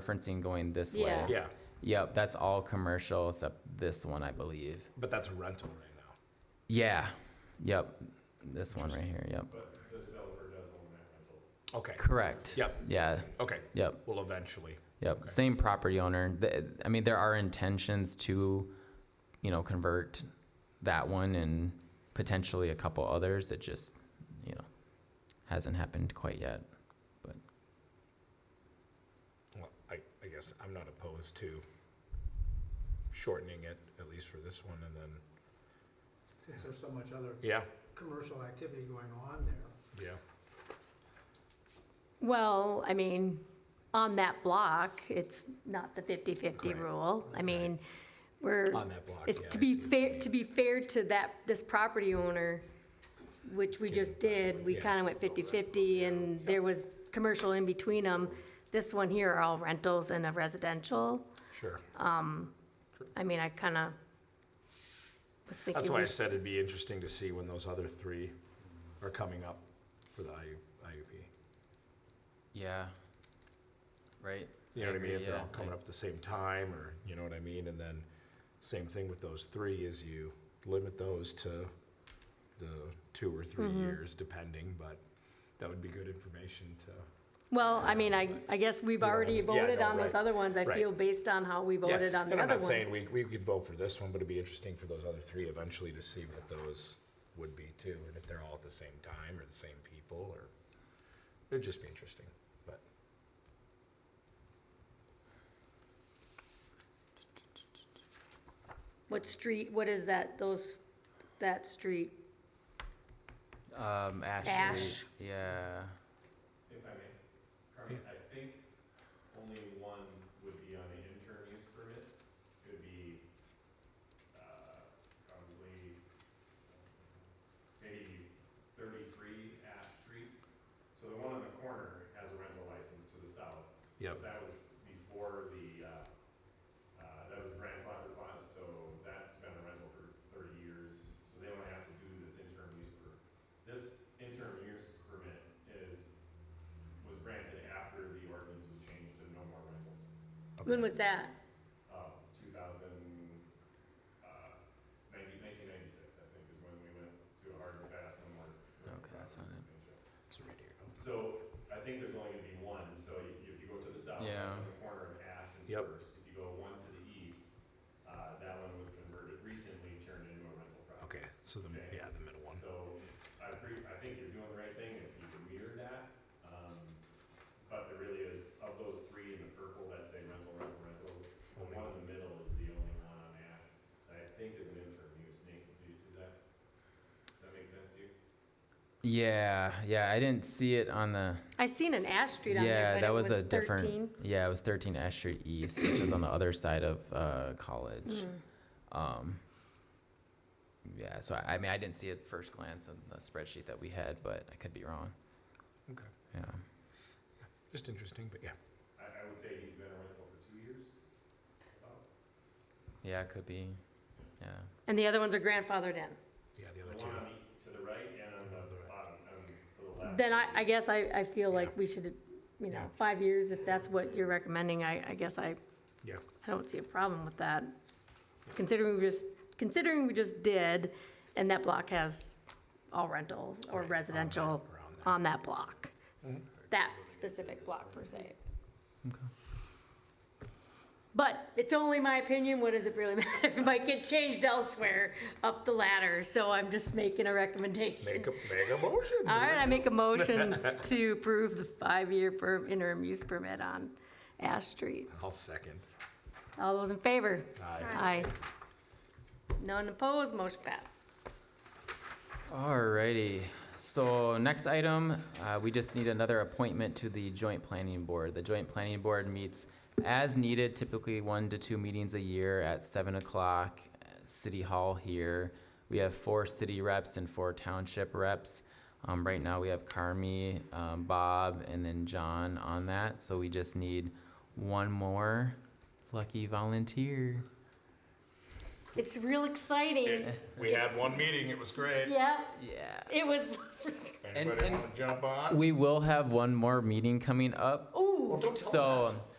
referencing going this Yeah. way. Yeah. Yep, that's all commercial except this one, I believe. But that's a rental right now. Yeah. Yep. This one right here. Yep. Okay. Correct. Yep. Yeah. Okay. Yep. Well, eventually. Yep. Same property owner. Th- I mean, there are intentions to, you know, convert that one and potentially a couple others. It just, you know, hasn't happened quite yet. But Well, I, I guess I'm not opposed to shortening it, at least for this one, and then, since there's so much other yeah, commercial activity going on there. yeah. Well, I mean, on that block, it's not the 50-50 Correct. rule. I mean, we're. On that block, It's yeah, to I be see what fair, to be fair to that, this property owner, which we just did, we Yeah. kind of went 50-50 and there was commercial in between them. This one here are all rentals and a residential. Sure. I mean, I kind of was thinking. That's why we I said it'd be interesting to see when those other three are coming up for the IU, IUP. yeah. Right. You know what I mean? If they're all Yeah, coming I- up at the same time, or, you know what I mean? And then, same thing with those three, is you limit those to the two or three Mm-hmm. years, depending, but that would be good information to. Well, I mean, I, I guess we've know, already yeah, voted no, on those right, other ones. I right. feel based on how we Yeah, voted on the And I'm other one. not saying we, we could vote for this one, but it'd be interesting for those other three eventually to see what those would be too, and if they're all at the same time, or the same people, or, it'd just be interesting, but. What street, what is that, those, that street? Um, Ashley. Ash. Yeah. If I may, Carmen, I think only one would be on an intern use permit. It would be, uh, probably, maybe thirty-three Ash Street. So the one on the corner has a rental license to the south. Yep. That was before the, uh, uh, that was grandfathered clause, so that's been a rental for thirty years, so they don't have to do this interim use per. This interim use permit is, was granted after the ordinance was changed to no more rentals, When was that? uh, two thousand, uh, ninety, nineteen ninety-six, I think, is when we went to a hard and fast no more. Okay, that's not it. So I think there's only gonna be one, so y- if you go to the south, Yeah. that's on the corner of Ash and Yep. First. If you go one to the east, uh, that one was converted recently, turned into a rental property. Okay, so the, yeah, the middle one. So I agree, I think you're doing the right thing if you can mirror that. Um, but there really is, of those three in the purple that say rental, rental, rental, the Only one in the middle is the only one on Ash that I think is an interim use. Nate, do you- does that, does that make sense to you? Yeah. Yeah. I didn't see it on the. I seen an Ash Street on yeah, there, but that it was, was a different. thirteen. Yeah, it was 13 Ash Street East, which is on the other side of uh, college. Mm-hmm. Um, yeah, so I, I mean, I didn't see it first glance in the spreadsheet that we had, but I could be wrong. Okay, Yeah. just interesting, but yeah. I, I would say he's been a rental for two years. about. Yeah, it could be. Yeah. And the other ones are grandfathered in. Yeah, the The other two. one on the, to the right and on the bottom, um, to the left. Then I, I guess I, I feel Yeah. like we should, you know, Yeah. five years, if that's what you're recommending, I, I guess I, Yeah, I don't see a problem with that. Considering we just, considering we just did, and that block has all rentals or Right, on that- residential around that. Mm-hmm. on that block. That specific block per se. Okay. But it's only my opinion, what does it really matter? It might get changed elsewhere up the ladder, so I'm just making a recommendation. make a, make a motion. All right, I make a motion to approve the five-year per- interim use permit on Ash Street. I'll second. All those in favor? Aye. Aye. None opposed, motion passed. Alrighty. So next item, uh, we just need another appointment to the joint planning board. The joint planning board meets as needed, typically one to two meetings a year at seven o'clock, at City Hall here. We have four city reps and four township reps. Um, right now, we have Carmi, um, Bob, and then John on that, so we just need one more lucky volunteer. It's real exciting. We had one meeting, it was great. Yeah, Yeah. it was, Anybody and- jump on? We will have one more meeting coming up, ooh, Don't tell So, Matt.